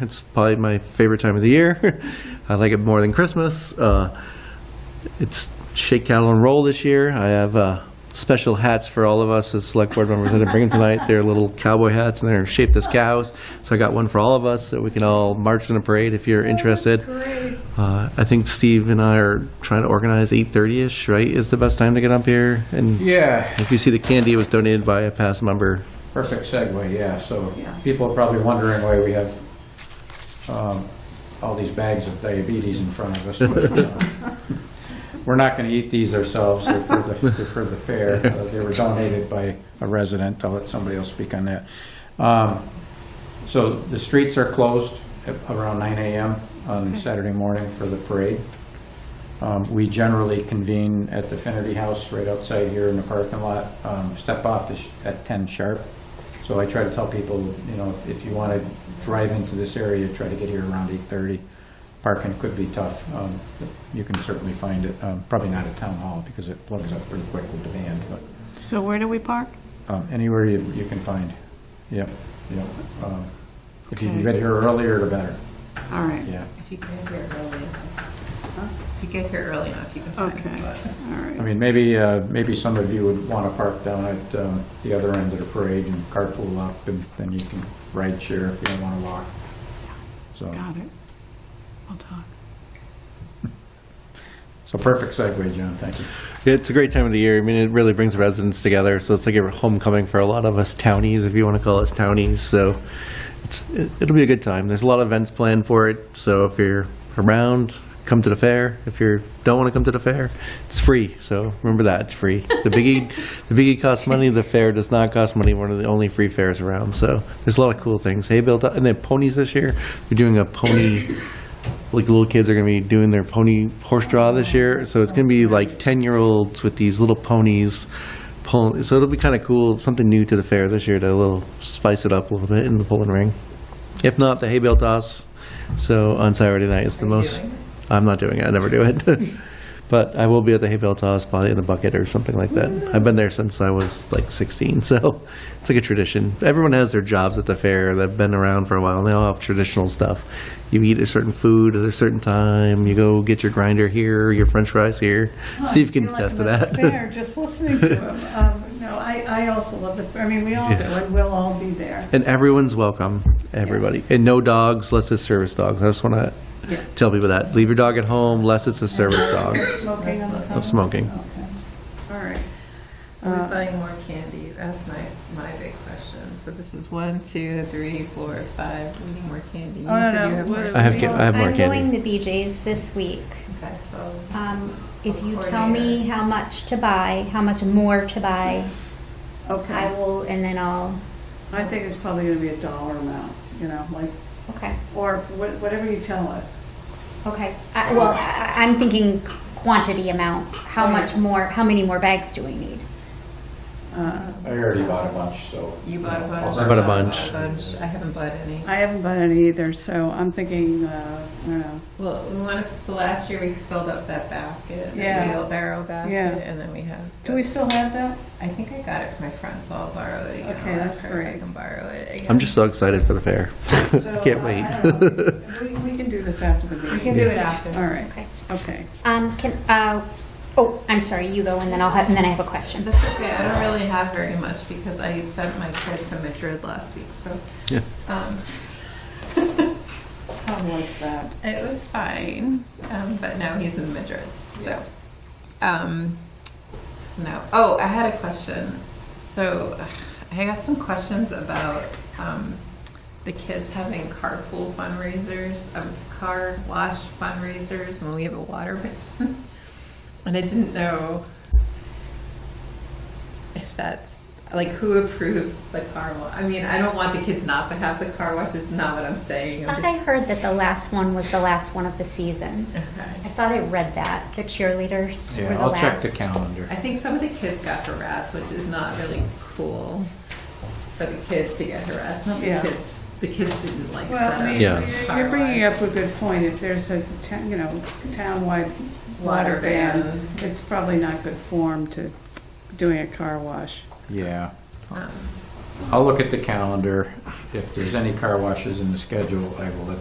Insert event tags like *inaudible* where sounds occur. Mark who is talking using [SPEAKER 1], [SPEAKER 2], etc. [SPEAKER 1] It's probably my favorite time of the year. *laughs* I like it more than Christmas. Uh, it's Shake, Cattle, and Roll this year. I have uh, special hats for all of us as select board members. I didn't bring them tonight. They're little cowboy hats, and they're shaped as cows. So I got one for all of us, so we can all march in a parade if you're interested. Uh, I think Steve and I are trying to organize 8:30ish, right, is the best time to get up here? And
[SPEAKER 2] Yeah,
[SPEAKER 1] if you see the candy, it was donated by a past member.
[SPEAKER 2] perfect segue, yeah, so people are probably wondering why we have um, all these bags of diabetes in front of us. but, uh, We're not going to eat these ourselves, they're for the, they're for the fair, Uh, they were donated by a resident, I'll let somebody else speak on that. Um, So the streets are closed at around 9 AM on Saturday morning for the parade. Um, We generally convene at the Finnerty House right outside here in the parking lot, um, step off is at 10 sharp. So I try to tell people, you know, if- if you want to drive into this area, try to get here around 8:30. Parking could be tough. Um, You can certainly find it, um, probably not at Town Hall because it plugs up pretty quick with demand, but
[SPEAKER 3] So where do we park?
[SPEAKER 2] um, anywhere you you can find. Yep, yep. Um, If you can
[SPEAKER 3] Okay.
[SPEAKER 2] get here earlier, the better,
[SPEAKER 3] All right,
[SPEAKER 2] yeah.
[SPEAKER 4] If you get here early enough. If you get here early enough, you can find
[SPEAKER 3] Okay.
[SPEAKER 4] a spot.
[SPEAKER 3] all
[SPEAKER 2] I
[SPEAKER 3] right.
[SPEAKER 2] mean, maybe, uh, maybe some of you would want to park down at um, the other end of the parade and carpool up, and then you can ride share if you don't want to walk. So,
[SPEAKER 3] Got it. We'll talk.
[SPEAKER 2] so perfect segue, John, thank you.
[SPEAKER 1] It's a great time of the year. I mean, it really brings residents together. So it's like a homecoming for a lot of us townies, if you want to call us townies. So it's it- it'll be a good time. There's a lot of events planned for it. So if you're around, come to the fair. If you don't want to come to the fair, it's free. So remember that it's free. The biggie, the biggie costs money. The fair does not cost money. One of the only free fairs around. So there's a lot of cool things. Hey, Bill, and then ponies this year. We're doing a pony like little kids are gonna be doing their pony horse draw this year, so it's gonna be like ten-year-olds with these little ponies. Pull, so it'll be kind of cool, something new to the fair this year to a little spice it up a little bit in the pulling ring. If not, the hay bale toss. So on Saturday night, it's the
[SPEAKER 4] Are you
[SPEAKER 1] most.
[SPEAKER 4] doing
[SPEAKER 1] I'm not doing it. I never do it. but I will be at the hay bale toss, probably in a bucket or something like that. I've been there since I was like 16, so it's like a tradition. Everyone has their jobs at the fair that've been around for a while, and they all have traditional stuff. You eat a certain food at a certain time. You go get your grinder here, your French fries here. Steve can attest to that.
[SPEAKER 5] Fair, just listening to
[SPEAKER 1] *laughs*
[SPEAKER 5] him. Um, No, I, I also love the, I mean, we all do,
[SPEAKER 1] Yeah.
[SPEAKER 5] and we'll all be there.
[SPEAKER 1] And everyone's welcome, everybody.
[SPEAKER 5] Yes.
[SPEAKER 1] And no dogs, unless it's service dogs. I just want to
[SPEAKER 5] Yeah.
[SPEAKER 1] tell people that. Leave your dog at home, unless it's a service dog.
[SPEAKER 5] Smoking on the
[SPEAKER 1] No
[SPEAKER 5] common?
[SPEAKER 1] smoking.
[SPEAKER 5] Okay, all right.
[SPEAKER 4] Are we
[SPEAKER 5] Uh,
[SPEAKER 4] buying more candy? That's my, my big question. So this was one, two, three, four, five, we need more candy. You
[SPEAKER 5] Oh, no,
[SPEAKER 4] said
[SPEAKER 5] no,
[SPEAKER 4] you have more.
[SPEAKER 5] we're-
[SPEAKER 1] I have, ca- I have more
[SPEAKER 6] I'm going
[SPEAKER 1] candy.
[SPEAKER 6] to BJ's this week.
[SPEAKER 4] Okay, so
[SPEAKER 6] Um, if you
[SPEAKER 4] Or
[SPEAKER 6] tell me how much to buy, how much more to buy, I
[SPEAKER 5] Okay,
[SPEAKER 6] will, and then I'll,
[SPEAKER 5] I think it's probably gonna be a dollar amount, you know, like,
[SPEAKER 6] okay,
[SPEAKER 5] or wh- whatever you tell us.
[SPEAKER 6] okay. I- Well, I- I'm thinking quantity amount, how much more, how many more bags do we need?
[SPEAKER 5] Uh,
[SPEAKER 2] I already bought a bunch, so.
[SPEAKER 4] you bought a bunch.
[SPEAKER 1] I bought a bunch.
[SPEAKER 4] I haven't bought any.
[SPEAKER 5] I haven't bought any either, so I'm thinking, uh, I don't know,
[SPEAKER 4] Well, we want to, so last year we filled up that basket,
[SPEAKER 5] Yeah.
[SPEAKER 4] that wheelbarrow basket,
[SPEAKER 5] Yeah.
[SPEAKER 4] and then we have.
[SPEAKER 5] do we still have that?
[SPEAKER 4] I think I got it from my friend, so I'll borrow it again.
[SPEAKER 5] Okay,
[SPEAKER 4] I'll
[SPEAKER 5] that's
[SPEAKER 4] ask her if I
[SPEAKER 5] great.
[SPEAKER 4] can borrow it again.
[SPEAKER 1] I'm just so excited for the fair.
[SPEAKER 5] So,
[SPEAKER 1] *laughs* Can't
[SPEAKER 5] uh,
[SPEAKER 1] wait.
[SPEAKER 5] I don't know. We, we can do this after the meeting.
[SPEAKER 4] We can do it after.
[SPEAKER 5] All right,
[SPEAKER 6] Okay.
[SPEAKER 5] okay.
[SPEAKER 6] Um, can, uh, oh, I'm sorry, you go, and then I'll have, and then I have a question.
[SPEAKER 4] That's okay. I don't really have very much because I sent my kids to Madrid last week, so.
[SPEAKER 1] Yeah.
[SPEAKER 4] Um,
[SPEAKER 5] How was that?
[SPEAKER 4] it was fine, um, but now he's in Madrid, so. Um, so now, oh, I had a question. So I got some questions about um, the kids having carpool fundraisers, um, car wash fundraisers, and we have a water *laughs* ban. and I didn't know if that's like who approves the car wash. I mean, I don't want the kids not to have the car wash. Is not what I'm saying. I'm
[SPEAKER 6] I heard that the last one was the last one of the season.
[SPEAKER 4] just, okay.
[SPEAKER 6] I thought I read that, the cheerleaders were
[SPEAKER 2] Yeah,
[SPEAKER 6] the
[SPEAKER 2] I'll check
[SPEAKER 6] last.
[SPEAKER 2] the calendar.
[SPEAKER 4] I think some of the kids got harassed, which is not really cool for the kids to get harassed. Not
[SPEAKER 5] Yeah.
[SPEAKER 4] the kids. The kids didn't like
[SPEAKER 5] Well, I mean,
[SPEAKER 1] Yeah.
[SPEAKER 5] you're- you're bringing up a good point. If there's a, ta- you know, town-wide water
[SPEAKER 4] Water ban.
[SPEAKER 5] ban, it's probably not good form to doing a car wash.
[SPEAKER 2] Yeah,
[SPEAKER 4] Um,
[SPEAKER 2] I'll look at the calendar. If there's any car washes in the schedule, I will let